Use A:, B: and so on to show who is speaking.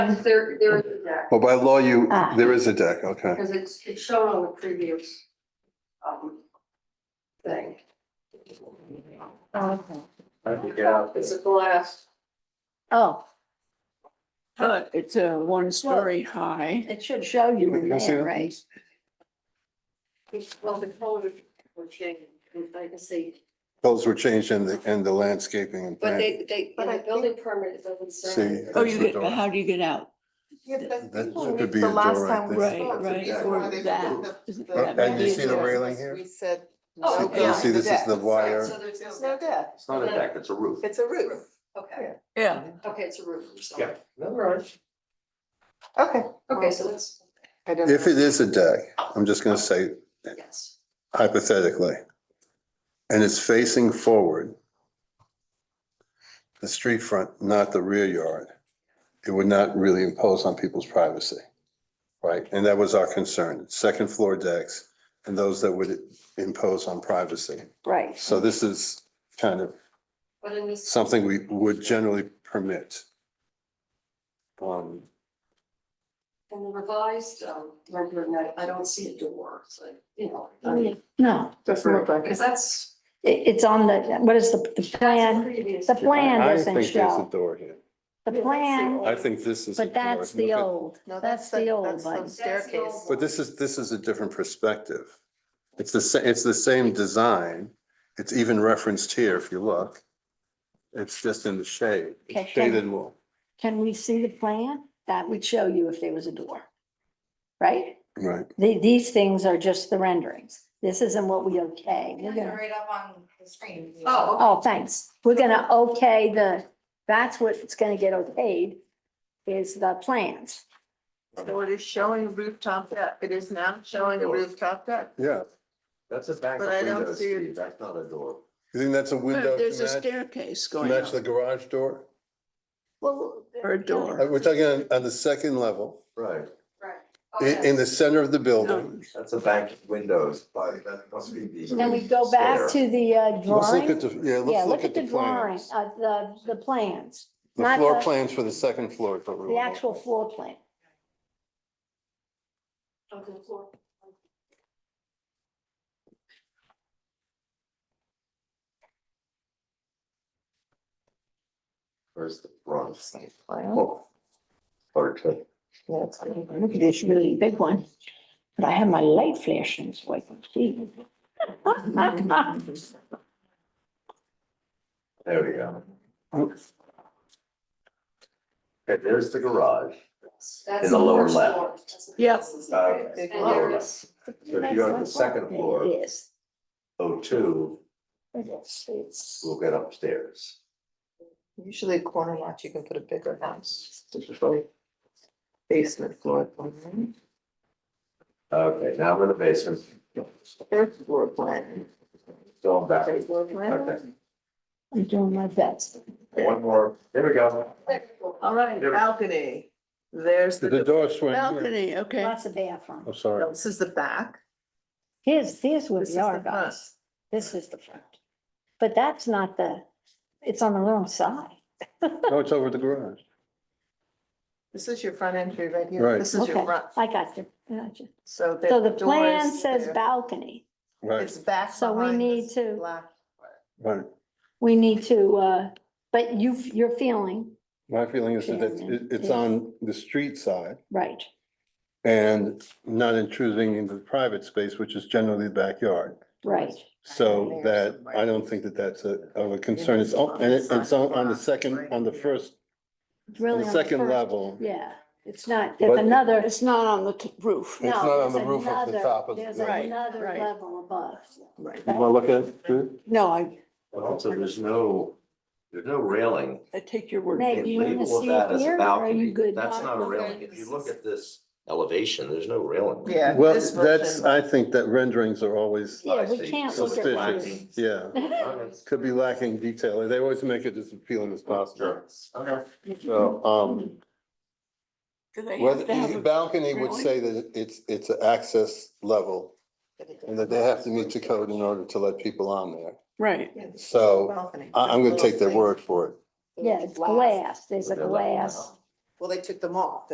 A: There, there is a deck,
B: Oh, by law, you,
C: Ah.
B: there is a deck, okay.
A: because it's, it's shown on the previous, um, thing.
C: Oh, okay.
A: It's a glass,
C: Oh,
D: But it's a one story high.
C: it should show you in
B: Can I see
C: there,
B: that,
C: right?
B: please?
A: it's, well, the color will change, I can see,
B: Those were changed in the, in the landscaping and
E: But
B: plan.
E: they, they,
A: but
E: in
A: a
E: the
A: building permit it doesn't
B: See.
A: say.
D: Oh,
B: that's
D: you
B: the
D: get,
B: door.
D: how do you get out?
B: That could be a
F: The last
B: door right
F: time we
B: there.
D: Right,
F: spoke, the
D: right,
F: reason
D: or
F: why they
D: that.
F: put the-
D: Isn't
F: the
D: that bad?
B: And you see the
F: media
B: railing
F: was
B: here?
F: We said.
A: Oh,
F: no
A: okay.
F: deck.
B: See, this is the
F: deck.
B: wire.
A: So there's
F: There's no deck,
G: It's not a deck, it's a roof.
F: it's a roof.
A: Okay,
D: Yeah,
A: okay, it's a roof or something.
G: Yeah. All right.
F: Okay.
A: Okay, so that's,
F: I don't
B: If
F: know.
B: it is a deck, I'm just gonna say
A: yes,
B: hypothetically, and it's facing forward, the street front, not the rear yard, it would not really impose on people's privacy. Right? And that was our concern, second floor decks and those that would impose on privacy.
C: Right.
B: So this is kind of
A: but in this,
B: something we would generally permit. Um,
A: in the revised, um, rendering, I, I don't see a door, so, you know, I mean,
C: No,
F: Doesn't look like it.
A: because that's.
C: it, it's on the, what is the, the
A: that's
C: plan?
A: previous.
C: The plan
B: I
C: doesn't
B: think there's a
C: show.
B: door here.
C: The plan,
B: I think this is. a
C: but that's
B: door.
C: the
B: Look at-
C: old,
F: No,
C: that's the old
F: that's
C: one.
F: Staircase.
B: But this is, this is a different perspective. It's the, sa- it's the same design. It's even referenced here if you look. It's just in the shade, It's
C: Okay.
B: shaded wall.
C: Can we see the plan? That would show you if there was a door. Right?
B: Right.
C: The, these things are just the renderings. This isn't what we okay. We're gonna,
E: right up on the screen.
A: Oh, okay.
C: oh, thanks. We're gonna okay the, that's what it's gonna get okayed is the plans.
F: So it is showing rooftop deck, it is now showing a rooftop deck.
B: Yeah.
G: That's a back
F: But I don't
G: window,
F: see it.
G: Steve, that's not a door.
B: You think that's a window
D: But there's a
B: to match,
D: staircase
B: to
D: going
B: match the
D: up
B: garage door?
C: Well,
D: or a
B: Uh,
D: door.
B: We're talking on, on the second level,
A: right.
G: Right,
B: in,
C: Oh,
A: Okay.
B: in the center of the building.
D: No,
G: that's a back windows, but that must be the.
C: Can we go back to the uh,
B: Let's look at
C: drawing?
B: the, yeah,
C: Yeah,
B: let's
C: look at the drawing,
B: plans.
C: uh, the, the plans,
B: The
C: not
B: floor
C: the-
B: plans for the second floor. is what we're
C: the
B: looking
C: actual
B: for.
C: floor plan.
A: Okay, floor.
G: Where's the front?
F: Site plan.
G: Oh. Hard to.
F: Yeah, it's on the
C: Look at this really big one, but I have my light flashing so I can see.
G: There we go. Okay, there's the garage.
A: That's
G: In the lower
A: first
G: left.
A: floor. That's the
D: Yep.
A: first floor.
G: Uh,
F: big
A: And there
F: one.
A: is,
G: So if you go to the second floor.
C: It is.
G: oh two,
C: It's, it's,
G: we'll get upstairs.
F: Usually a corner lot, you can put a bigger house, usually basement floor plan,
G: Okay, now we're in the basement,
F: third floor plan.
G: going back.
F: third floor plan.
G: Okay,
C: I'm doing my best.
G: one more, there we go.
F: All right,
G: There-
F: balcony, there's
B: The
F: the,
B: door swing. here.
D: Balcony, okay.
C: Lots of bathroom.
B: I'm sorry.
F: this is the back,
C: Here's, here's where
F: this is
C: we are,
F: the front.
C: guys. This is the front. But that's not the, it's on the wrong side.
B: No, it's over the garage.
F: This is your front entry right here,
B: Right.
F: this is your
C: Okay,
F: front,
C: I got you. I got you.
F: so the
C: So the
F: doors
C: plan says
F: there.
C: balcony.
B: Right,
F: It's back
C: So we
F: behind
C: need
F: this
C: to-
F: black-
B: right.
C: We need to, uh, but you, you're feeling,
B: My feeling is that it's, it- it's
C: Yeah.
B: on the street side
C: right,
B: and not intruding into the private space, which is generally the backyard.
C: right.
B: So that, I don't think that that's a, of a concern. It's, on- and it- it's on, on the second, on the first, on
C: Really
B: the
C: on
B: second
C: first-
B: level.
C: Yeah, it's not, there's
B: But-
C: another.
D: It's not on the t- roof.
B: It's
C: no,
B: not on the
C: there's
B: roof of the
C: another-
B: top of the
C: There's
D: building.
C: another
D: Right, right.
C: level above.
D: Right.
B: You wanna look at it? Drew?
D: No, I,
G: But also, there's no, there's no railing.
D: I take your word. for
C: Meg,
D: it.
C: you
G: Label
C: wanna
G: of
C: see
G: that
C: it
G: as a
C: here, or are
G: balcony.
C: you good?
G: That's not a
C: Bob?
G: railing. If you look at this elevation, there's no railing.
F: Yeah.
B: Well,
F: this
B: that's, uh,
F: version.
B: I think that renderings are always
C: Yeah,
G: I
C: we
G: see.
C: can't
G: So
C: look at
G: it's
C: this.
G: lacking.
B: Yeah, could be lacking detail. They always make it as appealing as possible.
G: Sure. Okay.
B: So, um,
D: Do they
B: well,
D: have to have
B: the
D: a-
B: balcony would
D: railing?
B: say that it's, it's an access level and that they have to meet the code in order to let people on there.
D: Right,
F: Yeah, this is
B: So,
F: balcony.
B: I, I'm gonna take their word for it.
C: Yeah, it's
F: Glass.
C: glass, there's a
G: They're looking
C: glass.
G: out.
F: Well, they took them off.